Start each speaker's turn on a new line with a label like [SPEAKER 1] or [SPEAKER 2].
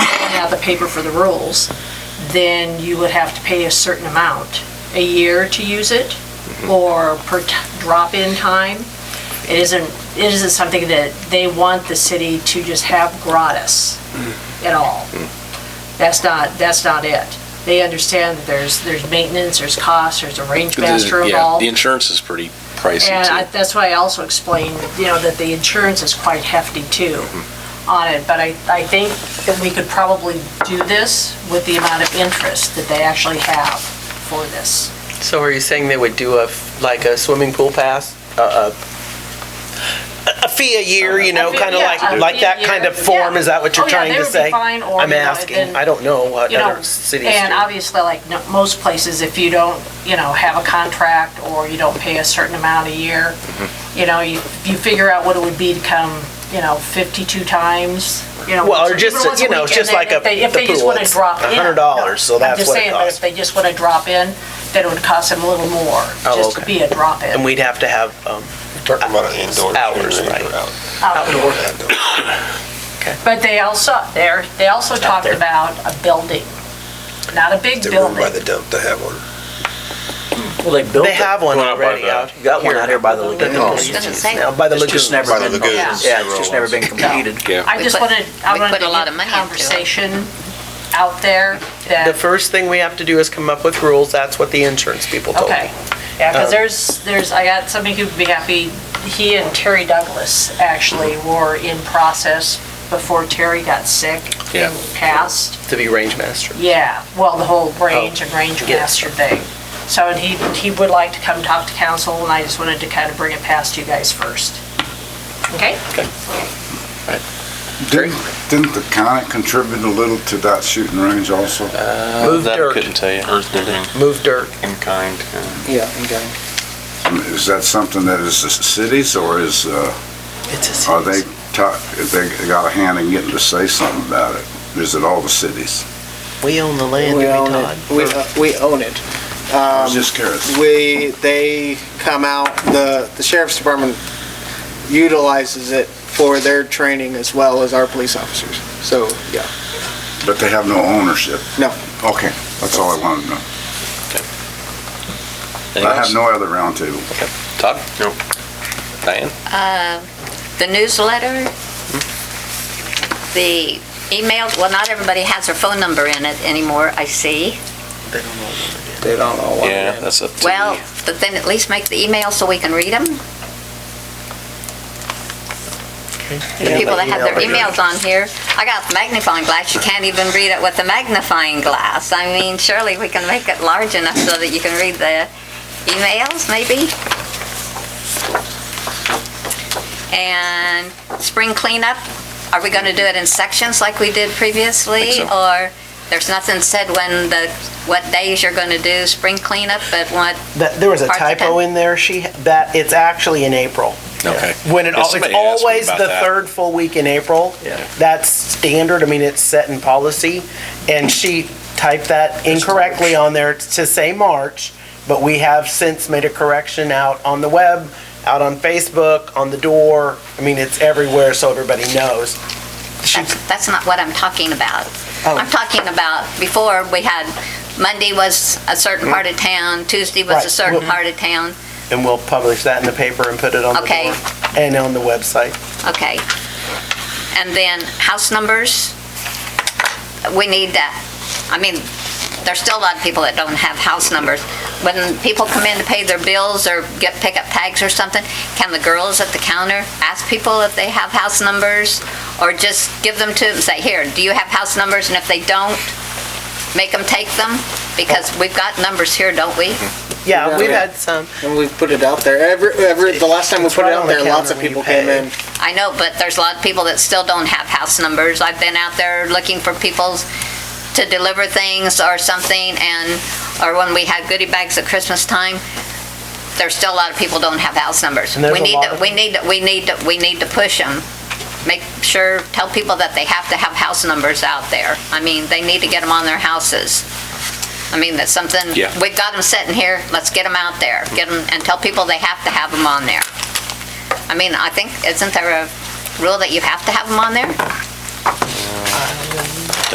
[SPEAKER 1] have the paper for the rules, then you would have to pay a certain amount, a year to use it, or per t- drop-in time. It isn't, it isn't something that they want the city to just have gratis at all. That's not, that's not it. They understand that there's, there's maintenance, there's costs, there's a range master
[SPEAKER 2] Yeah,
[SPEAKER 1] involved.
[SPEAKER 2] the insurance is pretty pricey
[SPEAKER 1] And I-
[SPEAKER 2] too.
[SPEAKER 1] that's why I also explained, you know, that the insurance is quite hefty too on it, but I, I think that we could probably do this with the amount of interest that they actually have for this.
[SPEAKER 3] So are you saying they would do a, f- like a swimming pool pass? A, a- a fee a year, you know,
[SPEAKER 1] A fee-
[SPEAKER 3] kind of
[SPEAKER 1] yeah,
[SPEAKER 3] like,
[SPEAKER 1] a
[SPEAKER 3] like
[SPEAKER 1] fee
[SPEAKER 3] that
[SPEAKER 1] a
[SPEAKER 3] kind
[SPEAKER 1] year,
[SPEAKER 3] of form?
[SPEAKER 1] yeah.
[SPEAKER 3] Is that what
[SPEAKER 1] Oh,
[SPEAKER 3] you're
[SPEAKER 1] yeah,
[SPEAKER 3] trying
[SPEAKER 1] they
[SPEAKER 3] to
[SPEAKER 1] would be
[SPEAKER 3] say?
[SPEAKER 1] fine, or,
[SPEAKER 3] I'm
[SPEAKER 1] you know,
[SPEAKER 3] asking,
[SPEAKER 1] and-
[SPEAKER 3] I don't know what
[SPEAKER 1] you know,
[SPEAKER 3] other cities
[SPEAKER 1] And
[SPEAKER 3] do.
[SPEAKER 1] obviously, like no- most places, if you don't, you know, have a contract or you don't pay a certain amount a year,
[SPEAKER 3] Mm-hmm.
[SPEAKER 1] you know, you, you figure out what it would be to come, you know, 52 times, you know.
[SPEAKER 3] Well,
[SPEAKER 1] once-
[SPEAKER 3] or just,
[SPEAKER 1] even once a
[SPEAKER 3] you know,
[SPEAKER 1] week,
[SPEAKER 3] just
[SPEAKER 1] and then
[SPEAKER 3] like
[SPEAKER 1] if
[SPEAKER 3] a-
[SPEAKER 1] they- If
[SPEAKER 3] the
[SPEAKER 1] they just
[SPEAKER 3] pool,
[SPEAKER 1] want to
[SPEAKER 3] it's
[SPEAKER 1] drop in.
[SPEAKER 3] $100, so
[SPEAKER 1] No,
[SPEAKER 3] that's what it
[SPEAKER 1] I'm just saying, but
[SPEAKER 3] costs.
[SPEAKER 1] if they just want to drop in, then it would cost them a little more,
[SPEAKER 3] Oh,
[SPEAKER 1] just to
[SPEAKER 3] okay.
[SPEAKER 1] be a drop
[SPEAKER 3] And
[SPEAKER 1] in.
[SPEAKER 3] we'd have to have, um,
[SPEAKER 4] Talking about an indoor.
[SPEAKER 3] Hours, right.
[SPEAKER 1] outdoor. Um, But they also, there, they also talked
[SPEAKER 3] there.
[SPEAKER 1] about a building, not a big
[SPEAKER 4] The room by
[SPEAKER 1] building.
[SPEAKER 4] the dump to have one.
[SPEAKER 5] Well, they built
[SPEAKER 3] they
[SPEAKER 5] it.
[SPEAKER 3] have one
[SPEAKER 2] One out by
[SPEAKER 3] already
[SPEAKER 2] the-
[SPEAKER 3] out.
[SPEAKER 5] You got one out here by the lagoon.
[SPEAKER 4] No.
[SPEAKER 5] It's
[SPEAKER 6] Doesn't say.
[SPEAKER 3] Now, by the lagoon.
[SPEAKER 5] just never
[SPEAKER 4] By the
[SPEAKER 5] been,
[SPEAKER 4] lagoon.
[SPEAKER 5] yeah, it's just never been completed.
[SPEAKER 2] Yeah,
[SPEAKER 1] I
[SPEAKER 6] We
[SPEAKER 1] just
[SPEAKER 6] put-
[SPEAKER 1] wanted, I
[SPEAKER 6] we
[SPEAKER 1] wanted to
[SPEAKER 6] put a lot of
[SPEAKER 1] get
[SPEAKER 6] money into it.
[SPEAKER 1] conversation out there
[SPEAKER 3] The
[SPEAKER 1] that,
[SPEAKER 3] first thing we have to do is come up with rules. That's what the insurance people told me.
[SPEAKER 1] okay. Yeah, because
[SPEAKER 3] Um,
[SPEAKER 1] there's, there's, I got somebody who'd be happy, he and Terry Douglas actually were in process before Terry got sick
[SPEAKER 2] Yeah.
[SPEAKER 1] and passed.
[SPEAKER 3] To be range master.
[SPEAKER 1] Yeah, well, the whole range and range
[SPEAKER 3] Oh. yes.
[SPEAKER 1] master thing. So and he, he would like to come talk to council, and I just wanted to kind of bring it past you guys first. Okay?
[SPEAKER 7] Didn't, didn't the county contribute a little to that shooting range also?
[SPEAKER 3] Move
[SPEAKER 2] that I couldn't
[SPEAKER 3] dirt,
[SPEAKER 2] tell you.
[SPEAKER 8] Earth moving
[SPEAKER 3] move dirt.
[SPEAKER 8] in kind.
[SPEAKER 5] Yeah, okay.
[SPEAKER 7] I mean, Is that something that is the cities or is, uh,
[SPEAKER 3] It's a-
[SPEAKER 7] are they, ta- they got a hand in getting to say something about it? Is it all the cities?
[SPEAKER 3] We own the land, do we,
[SPEAKER 9] We own
[SPEAKER 3] Todd?
[SPEAKER 9] it. We, uh, we own it.
[SPEAKER 7] I was just curious.
[SPEAKER 9] We, they come out, the, the sheriff's department utilizes it for their training as well as our police officers. So, yeah,
[SPEAKER 7] But they have no ownership?
[SPEAKER 9] No.
[SPEAKER 7] Okay, that's all I wanted to know.
[SPEAKER 2] Anything
[SPEAKER 7] I have
[SPEAKER 2] else?
[SPEAKER 7] no other roundtable.
[SPEAKER 2] Todd?
[SPEAKER 8] Nope.
[SPEAKER 2] Diane?
[SPEAKER 6] Uh, The newsletter, the email, well, not everybody has their phone number in it anymore, I see.
[SPEAKER 5] They don't know what.
[SPEAKER 2] Yeah, that's up to
[SPEAKER 6] Well,
[SPEAKER 2] you.
[SPEAKER 6] but then at least make the email so we can read them. The people that have their emails on here, I got magnifying glass, you can't even read it with a magnifying glass. I mean, surely we can make it large enough so that you can read the emails, maybe? And spring cleanup, are we going to do it in sections like we did previously?
[SPEAKER 2] Think so.
[SPEAKER 6] Or there's nothing said when the, what days you're going to do spring cleanup, but what,
[SPEAKER 3] That, there was a
[SPEAKER 6] Parts of
[SPEAKER 3] typo
[SPEAKER 6] it.
[SPEAKER 3] in there, she, that, it's actually in April.
[SPEAKER 2] Okay.
[SPEAKER 3] When it,
[SPEAKER 2] Yeah,
[SPEAKER 3] al- it's
[SPEAKER 2] somebody asked me
[SPEAKER 3] always
[SPEAKER 2] about
[SPEAKER 3] the
[SPEAKER 2] that.
[SPEAKER 3] third full week in April.
[SPEAKER 5] Yeah.
[SPEAKER 3] That's standard, I mean, it's set in policy, and she typed that incorrectly on there to say March, but we have since made a correction out on the web, out on Facebook, on the door, I mean, it's everywhere, so everybody knows. She,
[SPEAKER 6] that's that's not what I'm talking about.
[SPEAKER 3] Oh.
[SPEAKER 6] I'm talking about, before, we had, Monday was a certain part of town, Tuesday was a
[SPEAKER 3] Right.
[SPEAKER 6] certain
[SPEAKER 3] Mhm.
[SPEAKER 6] part of town.
[SPEAKER 3] and we'll publish that in the paper and put it on the
[SPEAKER 6] Okay.
[SPEAKER 3] door and on the website.
[SPEAKER 6] Okay. And then house numbers, we need that. I mean, there's still a lot of people that don't have house numbers. When people come in to pay their bills or get pickup tags or something, can the girls at the counter ask people if they have house numbers? Or just give them to them, and say, here, do you have house numbers? And if they don't, make them take them? Because we've got numbers here, don't we?
[SPEAKER 3] Yeah,
[SPEAKER 9] Yeah.
[SPEAKER 3] we've had some.
[SPEAKER 9] and we put it out there. Every, every, the last time we
[SPEAKER 3] It's
[SPEAKER 9] put
[SPEAKER 3] right
[SPEAKER 9] it out
[SPEAKER 3] on the
[SPEAKER 9] there, lots
[SPEAKER 3] counter
[SPEAKER 9] of
[SPEAKER 3] when
[SPEAKER 9] people
[SPEAKER 3] you pay.
[SPEAKER 9] came in.
[SPEAKER 6] I know, but there's a lot of people that still don't have house numbers. I've been out there looking for people to deliver things or something, and, or when we had goodie bags at Christmas time, there's still a lot of people don't have house numbers.
[SPEAKER 3] And there's
[SPEAKER 6] We
[SPEAKER 3] a
[SPEAKER 6] need
[SPEAKER 3] lot
[SPEAKER 6] to,
[SPEAKER 3] of-
[SPEAKER 6] we need to, we need to, we need to push them. Make sure, tell people that they have to have house numbers out there. I mean, they need to get them on their houses. I mean, that's something,
[SPEAKER 2] Yeah.
[SPEAKER 6] we've got them sitting here, let's get them out there. Get them, and tell people they have to have them on there. I mean, I think, isn't there a rule that you have to have them on there?